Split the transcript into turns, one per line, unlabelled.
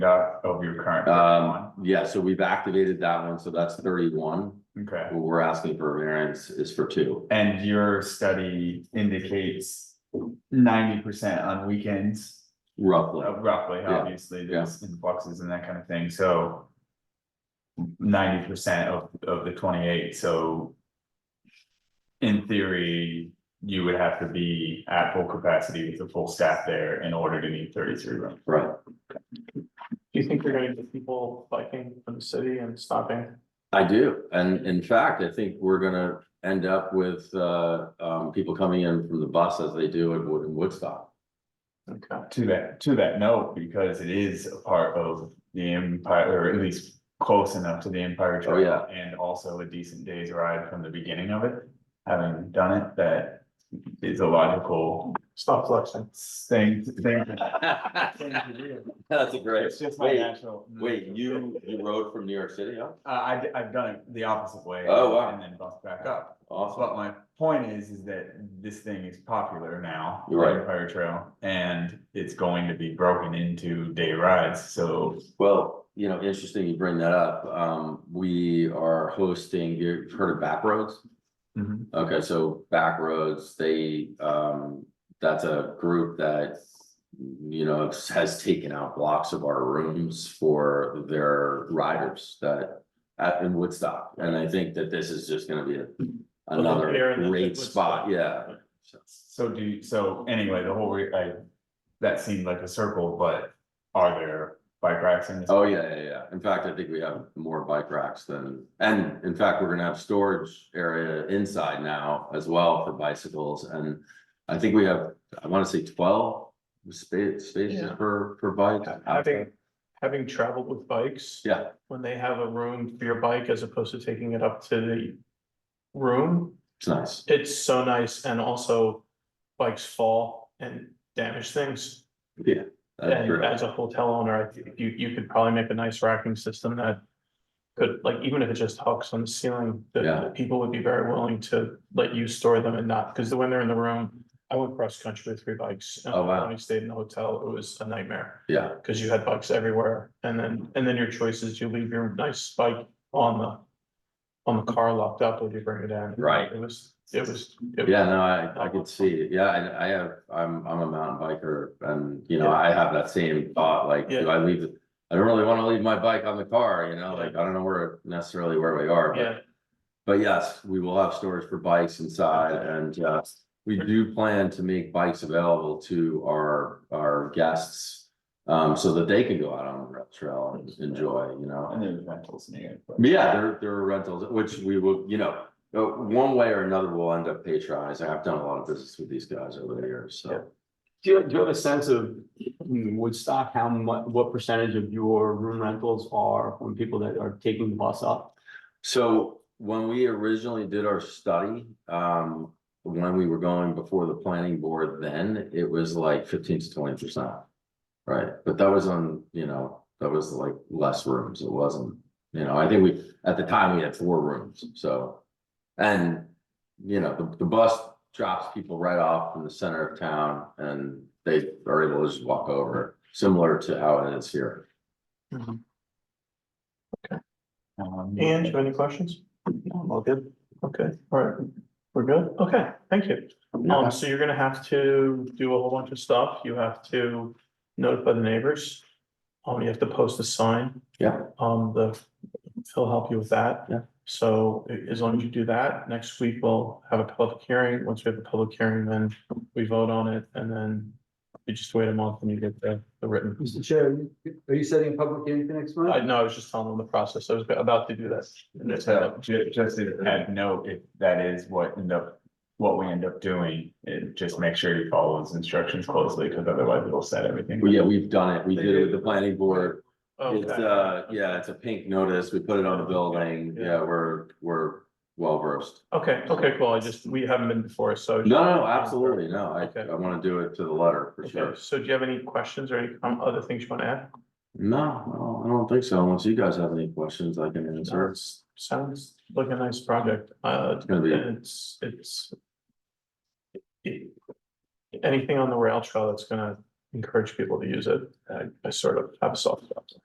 got of your current
Um,
one,
yeah, so we've activated that one, so that's thirty-one.
okay.
What we're asking for a variance is for two.
And your study indicates ninety percent on weekends,
Roughly,
uh, roughly,
Yeah.
obviously, there's influxes and that kind of thing, so. Ninety percent of, of the twenty-eight, so. In theory, you would have to be at full capacity with a full staff there in order to meet thirty-three rooms.
right?
Do you think you're gonna get people biking from the city and stopping?
I do, and in fact, I think we're gonna end up with uh um people coming in from the bus as they do at Wood in Woodstock.
Okay,
To that, to that note, because it is a part of the Empire, or at least close enough to the Empire
Oh,
Trail.
yeah.
And also a decent day's ride from the beginning of it, having done it, that is a logical
stop flexing.
thing, thing. thing
That's
to do.
a great,
It's just my
wait,
natural.
wait, you you rode from New York City, huh?
Uh, I, I've done it the opposite way.
Oh, wow.
And then bumped back up.
Awesome,
But my point is, is that this thing is popular now.
You're right.
the Empire Trail, and it's going to be broken into day rides, so
well, you know, interesting you bring that up, um we are hosting, you've heard of Backroads?
Mhm.
Okay, so Backroads, they, um, that's a group that. You know, has taken out blocks of our rooms for their riders that, at, in Woodstock, and I think that this is just gonna be a.
Here
Another
in the-
great spot, yeah,
So do, you- so anyway, the whole, re- I, that seemed like a circle, but are there bike racks in this?
oh, yeah, yeah, yeah, in fact, I think we have more bike racks than, and in fact, we're gonna have storage area inside now as well for bicycles, and. I think we have, I wanna say twelve space, spaces
Yeah.
per, per bike.
Having, having traveled with bikes.
Yeah,
When they have a room for your bike as opposed to taking it up to the room,
it's nice.
it's so nice and also bikes fall and damage things.
That's
And
great.
as a hotel owner, I think you, you could probably make a nice racking system that could, like, even if it just hooks on the ceiling, the,
Yeah.
the people would be very willing to let you store them and not, because when they're in the room, I went cross country with three bikes. and
Oh, wow.
When I stayed in the hotel, it was a nightmare,
Yeah,
because you had bikes everywhere, and then, and then your choice is you leave your nice bike on the on the car locked up, or you bring it in.
Right.
It was, it was. it-
yeah, no, I, I could see, yeah, I, I have, I'm, I'm a mountain biker and, you know, I have that same thought, like, do I leave? it- I don't really wanna leave my bike on the car, you know, like, I don't know where necessarily where we are, but
Yeah,
But yes, we will have storage for bikes inside and uh, we do plan to make bikes available to our, our guests. Um, so that they can go out on the rail trail and enjoy, you know,
And there's rentals near. but-
yeah, there, there are rentals, which we will, you know, uh, one way or another, we'll end up patronizing. I've done a lot of business with these guys over the years, so.
Do you, do you have a sense of in Woodstock, how mu- what percentage of your room rentals are from people that are taking the bus up?
So when we originally did our study, um, when we were going before the planning board, then it was like fifteen to twenty percent. Right, but that was on, you know, that was like less rooms. It wasn't, you know, I think we, at the time, we had four rooms, so. And, you know, the, the bus drops people right off in the center of town and they are able to just walk over, similar to how it is here.
Um,
and you have any questions?
Well, good.
Okay, all right, we're good, okay, thank you. Um, so you're gonna have to do a whole bunch of stuff, you have to notify the neighbors. Um, you have to post a sign.
Yeah.
Um, the, he'll help you with that.
Yeah.
So a- as long as you do that, next week we'll have a public hearing, once we have a public hearing, then we vote on it, and then. We just wait a month and you get the, the written,
Mr. Chair, are you setting a public hearing for next
I
month?
know, I was just telling them the process, I was about to do this. And it's-
So ju- just to add note, if that is what end up, what we end up doing, it just make sure you follow those instructions closely, because otherwise it'll set everything.
Well, yeah, we've done it. We did it with the planning board. It's
Okay.
uh, yeah, it's a pink notice. We put it on the building. Yeah, we're, we're well versed.
Okay, okay, cool, I just, we haven't been before, so.
No, no, absolutely. No, I,
Okay.
I want to do it to the letter for
Okay,
sure.
so do you have any questions or any um, other things you want to add?
No, no, I don't think so. Unless you guys have any questions I can answer.
Sounds- Sounds like a nice project, uh,
It's gonna be,
and it's, it's. it- Anything on the rail trail that's gonna encourage people to use it. I, I sort of have a soft spot.